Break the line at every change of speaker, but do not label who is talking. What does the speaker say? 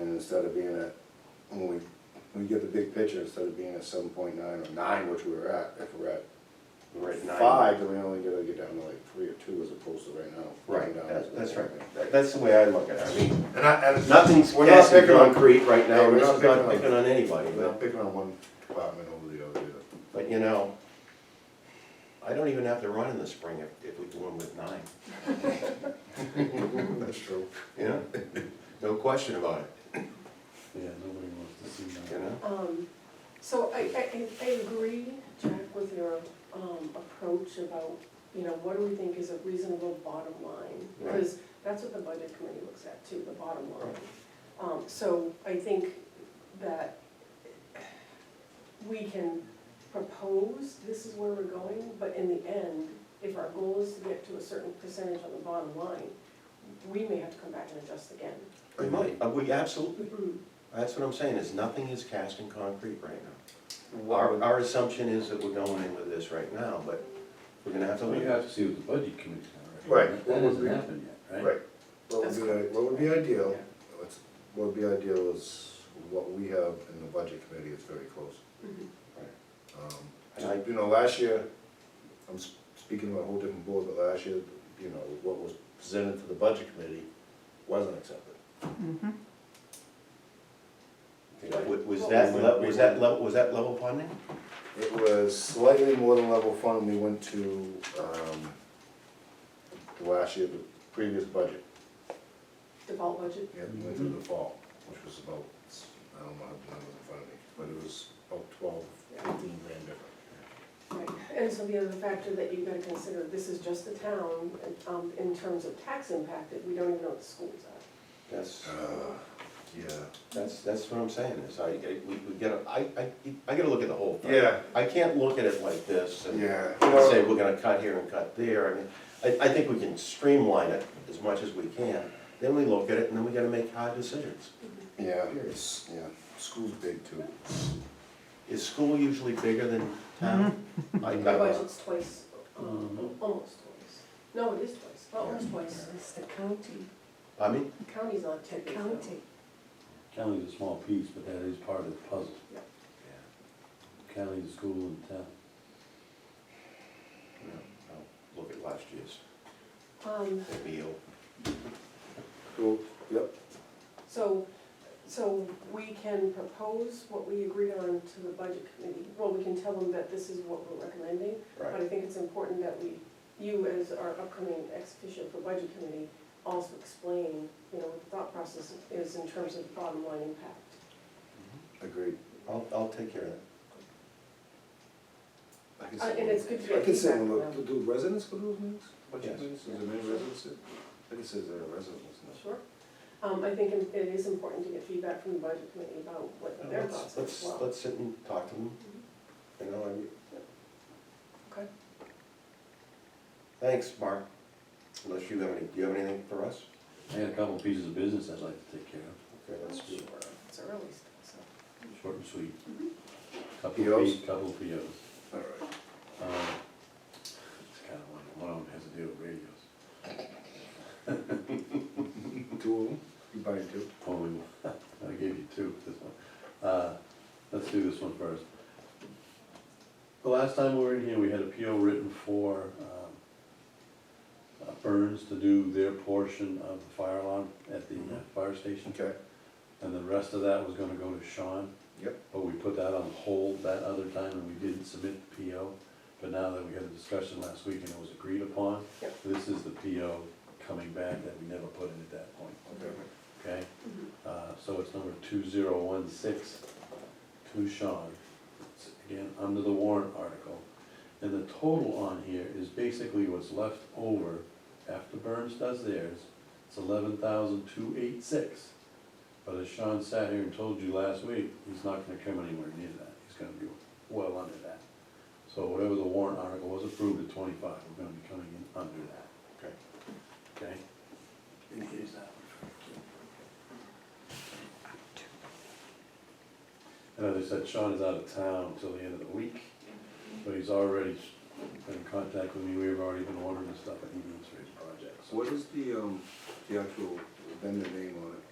instead of being at, when we, we get the big picture, instead of being at seven point nine or nine, which we were at, if we're at
We're at nine.
five, then we only gotta get down to like three or two as opposed to right now. going
Right,
down
that-
to-
that's right, That- that's the way I look at it, I mean,
And I, and
nothing's
We're not
cast in
picking on-
concrete right now,
Yeah, we're
this
not
is not
picking on-
picking on anybody,
I'm
but,
not picking on one department over the other either.
but you know, I don't even have to run in the spring if, if we go in with nine,
That's true.
you know? No question about it,
Yeah, nobody wants to see
you
that.
know?
Um, so I, I, I- I agree, Jack, with your, um, approach about, you know, what do we think is a reasonable bottom line?
Right.
Because that's what the budget committee looks at too, the bottom line.
Right.
Um, so I think that we can propose, this is where we're going, but in the end, if our goal is to get to a certain percentage on the bottom line, we may have to come back and adjust again.
We might, uh, we absolutely,
Mhm.
that's what I'm saying, is nothing is cast in concrete right now. Our,
Well,
our assumption is that we're going in with this right now, but we're gonna have to
we
look
have to see what the budget committee's gonna
Right,
recommend.
what
That
would
hasn't
we-
happened yet, right?
Right. What would
That's
be, what would be ideal, what's, what would be ideal is what we have in the budget committee is very close. Um,
And I-
You know, last year, I'm s- speaking to a whole different board, but last year, you know, what was presented to the budget committee wasn't accepted.
at it. Was
What
that,
was-
le- was that level, was that level funding?
It was slightly more than level fund, we went to, um, the last year, the previous budget,
Default budget,
yeah, we went to the fall, which was about, I don't know how the numbers in front of me, but it was about twelve, fifteen grand different.
Right, and so the other factor that you've got to consider, this is just the town, and, um, in terms of tax impact, that we don't even know what the schools are.
That's.
Uh, yeah.
That's, that's what I'm saying, is I, I- we, we gotta, I, I, I gotta look at the whole thing.
Yeah.
I can't look at it like this and
Uh, Yeah.
and say, we're gonna cut here and cut there, I mean, I, I think we can streamline it as much as we can, then we look at it, and then we gotta make hard decisions.
Yeah, it's, yeah, school's big too.
Is school usually bigger than town?
Mm-hmm.
I,
The
I,
budget's twice, um, almost twice, no, it is twice, well, almost twice,
It's the county,
I mean,
the county's not
the
too big, though.
county.
County's a small piece, but that is part of the puzzle. County, the school and town.
yeah, no, no, look at last year's,
Um,
maybe you'll,
Cool, yep.
so, so we can propose what we agreed on to the budget committee, well, we can tell them that this is what we're recommending, But
right,
I think it's important that we, you as our upcoming ex officio for budget committee, also explain, you know, what the thought process is in terms of bottom line impact.
Agreed.
I'll, I'll take care of that.
I can
Uh,
sit
and
in-
it's good to get
I can sit and
feedback
look,
from
do do residents go to those meetings? Budget
Yes.
meetings, is there many residents? that- I think it says there are residents. no?
Sure. Um, I think it it is important to get feedback from the budget committee about what their
Let's,
thoughts are as
let's,
well.
let's sit and talk to them, you know, I,
Okay.
Thanks, Mark. Unless you have any, do you have anything for us?
I had a couple pieces of business I'd like to take care of,
Okay, let's do it.
It's early still, so.
short and sweet. Couple of
POs?
P, couple of POs.
Mm-hmm. All right.
Um, It's kind of like, one of them has to do with radios.
Two of them, you buy two?
Only one. Oh, I gave you two for this one. Uh, Let's do this one first. The last time we were in here, we had a PO written for um, uh, Burns to do their portion of the fire alarm at the uh, fire station.
Okay.
And the rest of that was gonna go to Sean.
Yep.
But we put that on hold that other time and we didn't submit the PO. But now that we had a discussion last week and it was agreed upon,
Yep.
this is the PO coming back that we never put in at that point,
Okay.
okay?
Mm-hmm.
Uh, so it's number two zero one six to Sean. It's Again, under the warrant article. And the total on here is basically what's left over after Burns does theirs. It's eleven thousand two eight six. But as Sean sat here and told you last week, he's not gonna come anywhere near that. He's gonna be well under that. So whatever the warrant article was approved at twenty-five, we're gonna be coming in under that.
Okay.
Okay? And here's that one. And as I said, Sean is out of town until the end of the week, but he's already been in contact with me, we've already been ordering the stuff that he needs for his project, so.
What is the, um, the actual vendor name on it?